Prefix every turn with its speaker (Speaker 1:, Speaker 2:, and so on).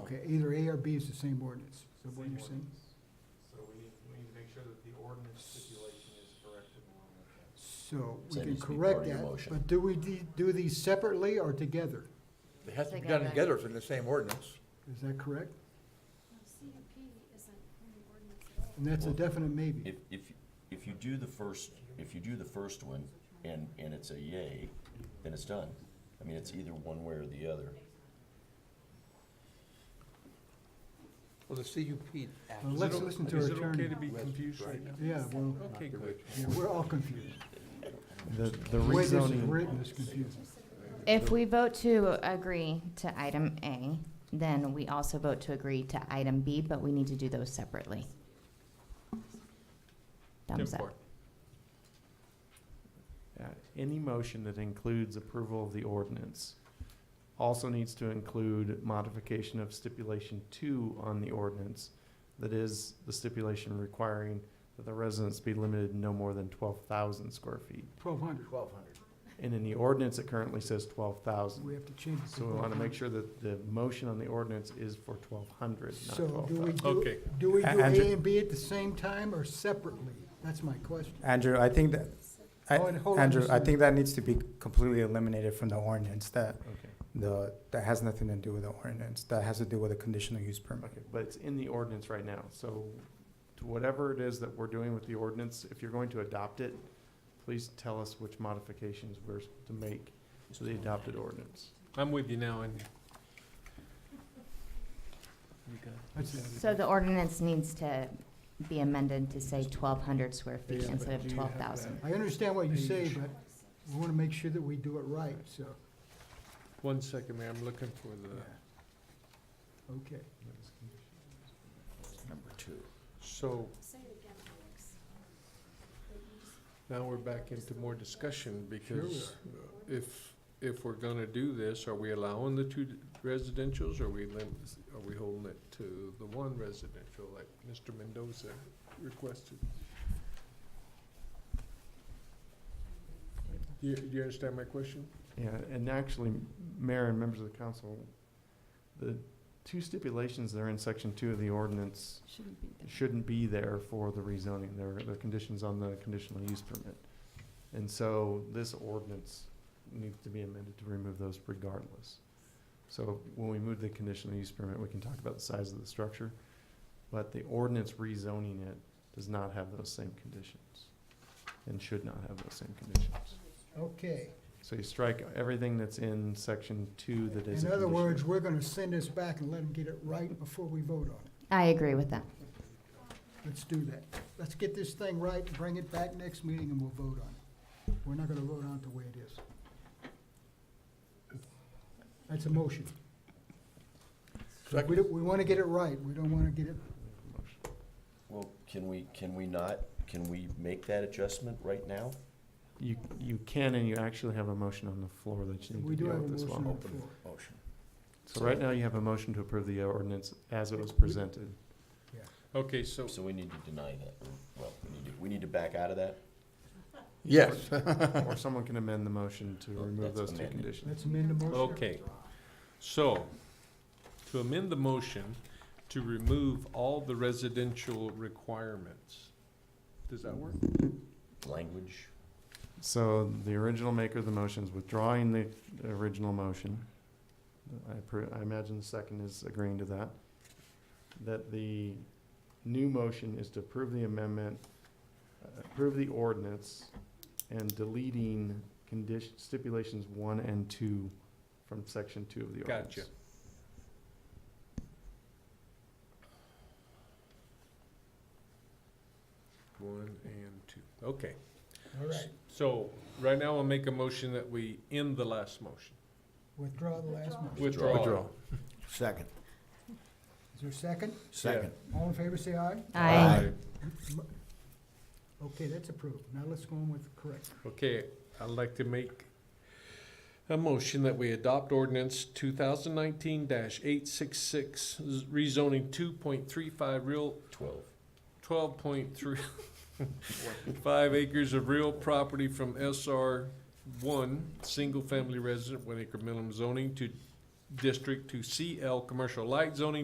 Speaker 1: Okay, either A or B is the same ordinance, is that what
Speaker 2: Same
Speaker 1: you're saying?
Speaker 2: ordinance. So we need, we need to make sure that the ordinance stipulation is correct and we're on that.
Speaker 1: So
Speaker 3: So
Speaker 1: we
Speaker 3: it
Speaker 1: can
Speaker 3: needs to be part
Speaker 1: correct
Speaker 3: of your
Speaker 1: that,
Speaker 3: motion.
Speaker 1: but do we de- do these separately or together?
Speaker 4: It has to be done
Speaker 5: Together.
Speaker 4: together, it's in the same ordinance.
Speaker 1: Is that correct?
Speaker 6: Well, CUP isn't in the ordinance at all.
Speaker 1: And that's a
Speaker 3: Well,
Speaker 1: definite maybe.
Speaker 3: If, if, if you do the first, if you do the first one and, and it's a yay, then it's done. I mean, it's either one way or the other.
Speaker 7: Well, the CUP.
Speaker 1: Well, let's listen to our
Speaker 2: Is it okay
Speaker 1: attorney.
Speaker 2: to be confused right now?
Speaker 1: Yeah, well,
Speaker 2: Okay, good.
Speaker 1: yeah, we're all confused.
Speaker 8: The, the
Speaker 1: The way this is
Speaker 8: rezoning,
Speaker 1: written is confusing.
Speaker 5: If we vote to agree to item A, then we also vote to agree to item B, but we need to do those separately. Thumbs up.
Speaker 8: uh, any motion that includes approval of the ordinance also needs to include modification of stipulation two on the ordinance. That is the stipulation requiring that the residence be limited no more than twelve thousand square feet.
Speaker 1: Twelve hundred,
Speaker 2: Twelve hundred.
Speaker 8: And in the ordinance, it currently says twelve thousand.
Speaker 1: we have to change it.
Speaker 8: So we want to make sure that the motion on the ordinance is for twelve hundred, not
Speaker 1: So
Speaker 8: twelve
Speaker 1: do we
Speaker 8: thousand.
Speaker 1: do,
Speaker 2: Okay.
Speaker 1: do we
Speaker 7: A-
Speaker 1: do
Speaker 7: Andrew-
Speaker 1: A and B at the same time or separately? That's my question.
Speaker 7: Andrew, I think that, I-
Speaker 1: Hold- hold on
Speaker 7: Andrew,
Speaker 1: just a
Speaker 7: I think that needs to be completely eliminated from the ordinance, that,
Speaker 8: Okay,
Speaker 7: the, that has nothing to do with the ordinance, that has to do with a conditional use permit.
Speaker 8: okay, but it's in the ordinance right now, so to whatever it is that we're doing with the ordinance, if you're going to adopt it, please tell us which modifications we're to make to the adopted ordinance.
Speaker 2: I'm with you now, Andy.
Speaker 1: That's it.
Speaker 5: So the ordinance needs to be amended to say twelve hundred square feet
Speaker 7: Yeah,
Speaker 5: instead
Speaker 7: but
Speaker 5: of
Speaker 7: do you have
Speaker 5: twelve thousand.
Speaker 1: I understand what you say,
Speaker 7: Page.
Speaker 1: but we want to make sure that we do it right, so,
Speaker 2: One second, Mayor, I'm looking for the,
Speaker 1: okay.
Speaker 3: Number two.
Speaker 2: so
Speaker 6: Say it again, Alex.
Speaker 2: now we're back into more discussion
Speaker 1: Sure we
Speaker 2: because if, if we're gonna do this, are we allowing the two residentials? Are we lim, are we holding it to the one residential like Mr. Mendoza requested? Do you, do you understand my question?
Speaker 8: Yeah, and actually, Mayor and members of the council, the two stipulations that are in section two of the ordinance
Speaker 6: Shouldn't be
Speaker 8: shouldn't be there for the rezoning, there, there are conditions on the conditional use permit. And so this ordinance needs to be amended to remove those regardless. So when we move the conditional use permit, we can talk about the size of the structure, but the ordinance rezoning it does not have those same conditions and should not have those same conditions.
Speaker 1: Okay,
Speaker 8: So you strike everything that's in section two that is a
Speaker 1: in other
Speaker 8: condition.
Speaker 1: words, we're going to send this back and let them get it right before we vote on it.
Speaker 5: I agree with that.
Speaker 1: Let's do that. Let's get this thing right, bring it back next meeting, and we'll vote on it. We're not going to vote on it the way it is. That's a motion. We,
Speaker 4: Second.
Speaker 1: don't- we want to get it right, we don't want to get it,
Speaker 3: Well, can we, can we not, can we make that adjustment right now?
Speaker 8: You, you can and you actually have a motion on the floor that you
Speaker 1: we
Speaker 8: need to
Speaker 1: do
Speaker 8: deal
Speaker 1: have a
Speaker 8: with as
Speaker 1: motion
Speaker 8: well.
Speaker 1: on the floor.
Speaker 3: Motion.
Speaker 8: So right now, you have a motion to approve the ordinance as it was presented.
Speaker 2: Okay, so
Speaker 3: So we need to deny that, or, well, we need to, we need to back out of that?
Speaker 4: Yes.
Speaker 8: Or someone can amend the motion to
Speaker 3: Well,
Speaker 8: remove
Speaker 3: that's
Speaker 8: those two
Speaker 3: amended.
Speaker 8: conditions.
Speaker 1: Let's amend the motion.
Speaker 2: Okay. So, to amend the motion to remove all the residential requirements. Does that work?
Speaker 3: Language?
Speaker 8: So the original maker of the motion is withdrawing the original motion. I, appro- I imagine the second is agreeing to that. That the new motion is to approve the amendment, uh, approve the ordinance, and deleting condition, stipulations one and two from section two of the ordinance.
Speaker 2: Gotcha. One and two, okay.
Speaker 1: All right,
Speaker 2: So, right now I'll make a motion that we end the last motion.
Speaker 1: withdraw the last motion.
Speaker 3: Withdraw.
Speaker 2: Withdraw.
Speaker 4: Withdraw.
Speaker 3: Second.
Speaker 1: Is there a second?
Speaker 2: Second.
Speaker 1: All in favor, say aye.
Speaker 5: I
Speaker 1: Okay, that's approved. Now let's go on with correct.
Speaker 2: Okay, I'd like to make a motion that we adopt ordinance two thousand nineteen eight six six, rezoning two point three five real,
Speaker 3: Twelve.
Speaker 2: twelve point three five acres of real property from SR one, single-family resident, one acre minimum zoning to district to CL, commercial light zoning